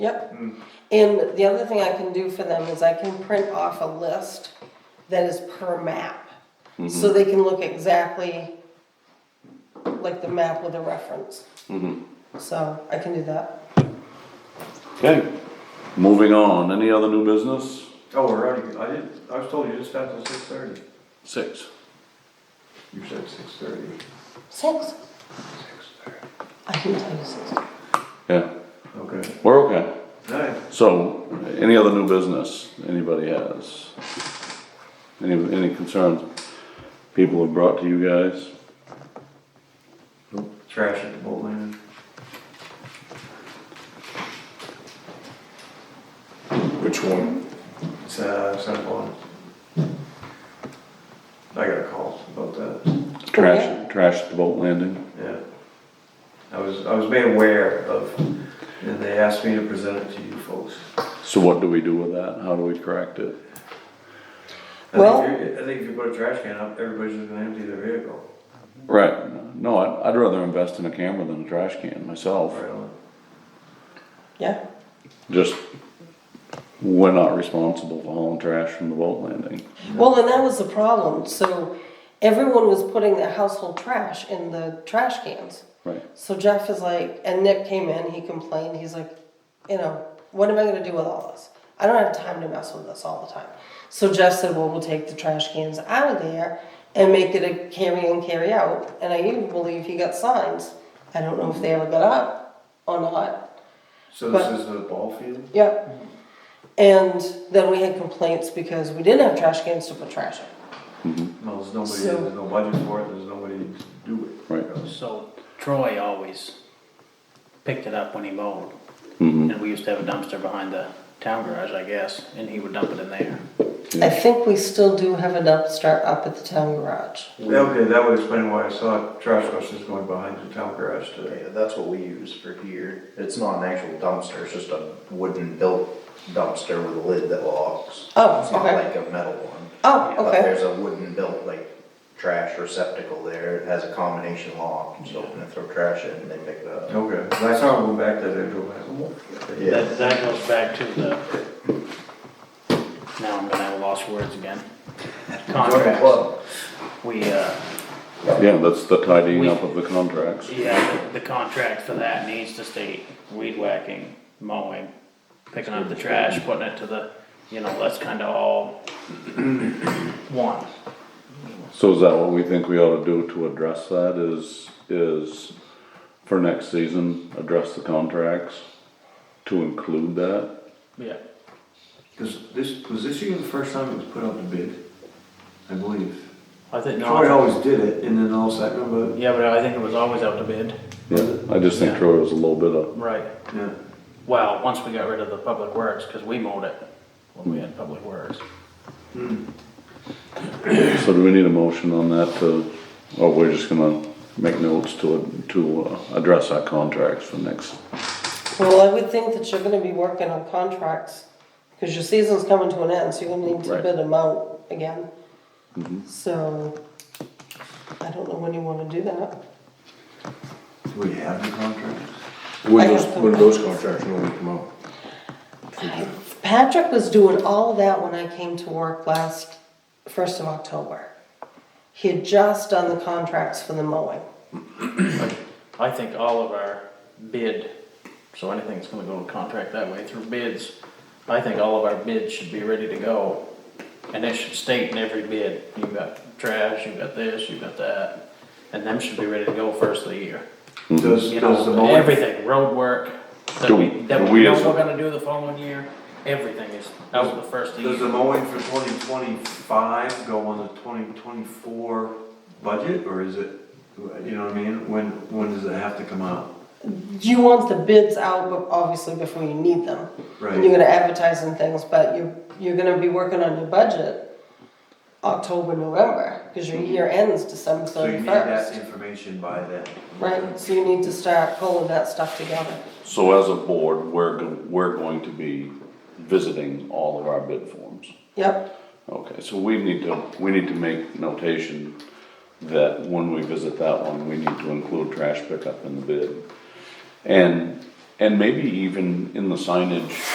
Yep. And the other thing I can do for them is I can print off a list that is per map. So they can look exactly like the map with a reference. So I can do that. Okay, moving on, any other new business? Oh, we're already, I did, I was told you just got till six thirty. Six. You said six thirty. Six? Six thirty. I can tell you six. Yeah, Okay. we're okay. Nice. So, any other new business anybody has? Any, any concerns people have brought to you guys? Trash at the boat landing. Which one? It's, uh, it's not on. I got a call about that, Okay. Trash, trash at the boat landing? yeah. I was, I was made aware of, and they asked me to present it to you folks. So what do we do with that? How do we correct it? I think Well- if you- I think if you put a trash can up, everybody's just gonna empty their vehicle. Right, no, I'd, I'd rather invest in a camera than a trash can myself. Right on. Yeah, Just, we're not responsible for hauling trash from the boat landing. well, and that was the problem, so everyone was putting their household trash in the trash cans. Right, So Jeff is like, and Nick came in, he complained, he's like, you know, what am I gonna do with all this? I don't have time to mess with this all the time. So Jeff said, well, we'll take the trash cans out of there and make it a carry in, carry out, and I even believe he got signs. I don't know if they ever got up or not, So this But- is the ball field? yeah. And then we had complaints because we didn't have trash cans to put trash in. No, there's nobody, So- there's no budget for it, there's nobody to do it. Right. So Troy always picked it up when he mowed. And we used to have a dumpster behind the town garage, I guess, and he would dump it in there. I think we still do have a dumpster up at the town garage. Yeah, Okay, that would explain why I saw trash buses going behind the town garage today. Yeah, that's what we use for here. It's not an actual dumpster, it's just a wooden built dumpster with a lid that locks. Oh, It's not okay. like a metal one. Oh, But okay, there's a wooden built like trash receptacle there. It has a combination lock, you just open it, throw trash in, and they pick it up. Okay, 'cause I saw them go back there, they go back. "What?" Yeah. That, that goes back to the, now I'm gonna have lost words again. Contracts, Well, we, uh, yeah, that's the tidying up of the contracts. yeah, the the contract for that needs to state weed whacking, mowing, picking up the trash, putting it to the, you know, that's kinda all one. So is that what we think we ought to do to address that is, is for next season, address the contracts to include that? Yeah. Cause this, was this year the first time it was put out to bid? I believe. I think, Troy no, always did it, and then all of a sudden, but, yeah, but I think it was always out to bid. I just think Troy was a little bit of, Right. yeah. Well, once we got rid of the public works, because we mowed it when we had public works. so do we need a motion on that to, or we're just gonna make notes to, to uh, address our contracts for next? well, I would think that you're gonna be working on contracts, cause your season's coming to an end, so you're gonna need to Right. bid them out again. Mm-hmm. So, I don't know when you wanna do that. Do we have the contracts? When I those, have to- when those contracts normally come out? Patrick was doing all of that when I came to work last, first of October. He had just done the contracts for the mowing. I think all of our bid, so anything that's gonna go to contract that way through bids, I think all of our bids should be ready to go. And it should state in every bid, you've got trash, you've got this, you've got that, and them should be ready to go first of the year. Does, You does the know, mowing, everything, road work, that Do we, we- that do we we know as a- we're gonna do the following year, everything is out the first of the year. does the mowing for twenty twenty-five go on the twenty twenty-four budget, or is it, you know what I mean? When, when does it have to come out? You want the bids out, but obviously before you need them. And you're Right, gonna advertise and things, but you're, you're gonna be working on your budget October, November, cause your year ends December Mm-hmm. so you need that thirty-first. information by then. Right, so you need to start pulling that stuff together. So as a board, we're, go- we're going to be visiting all of our bid forms. Yep, Okay, so we need to, we need to make notation that when we visit that one, we need to include trash pickup in the bid. And, And maybe even in the signage,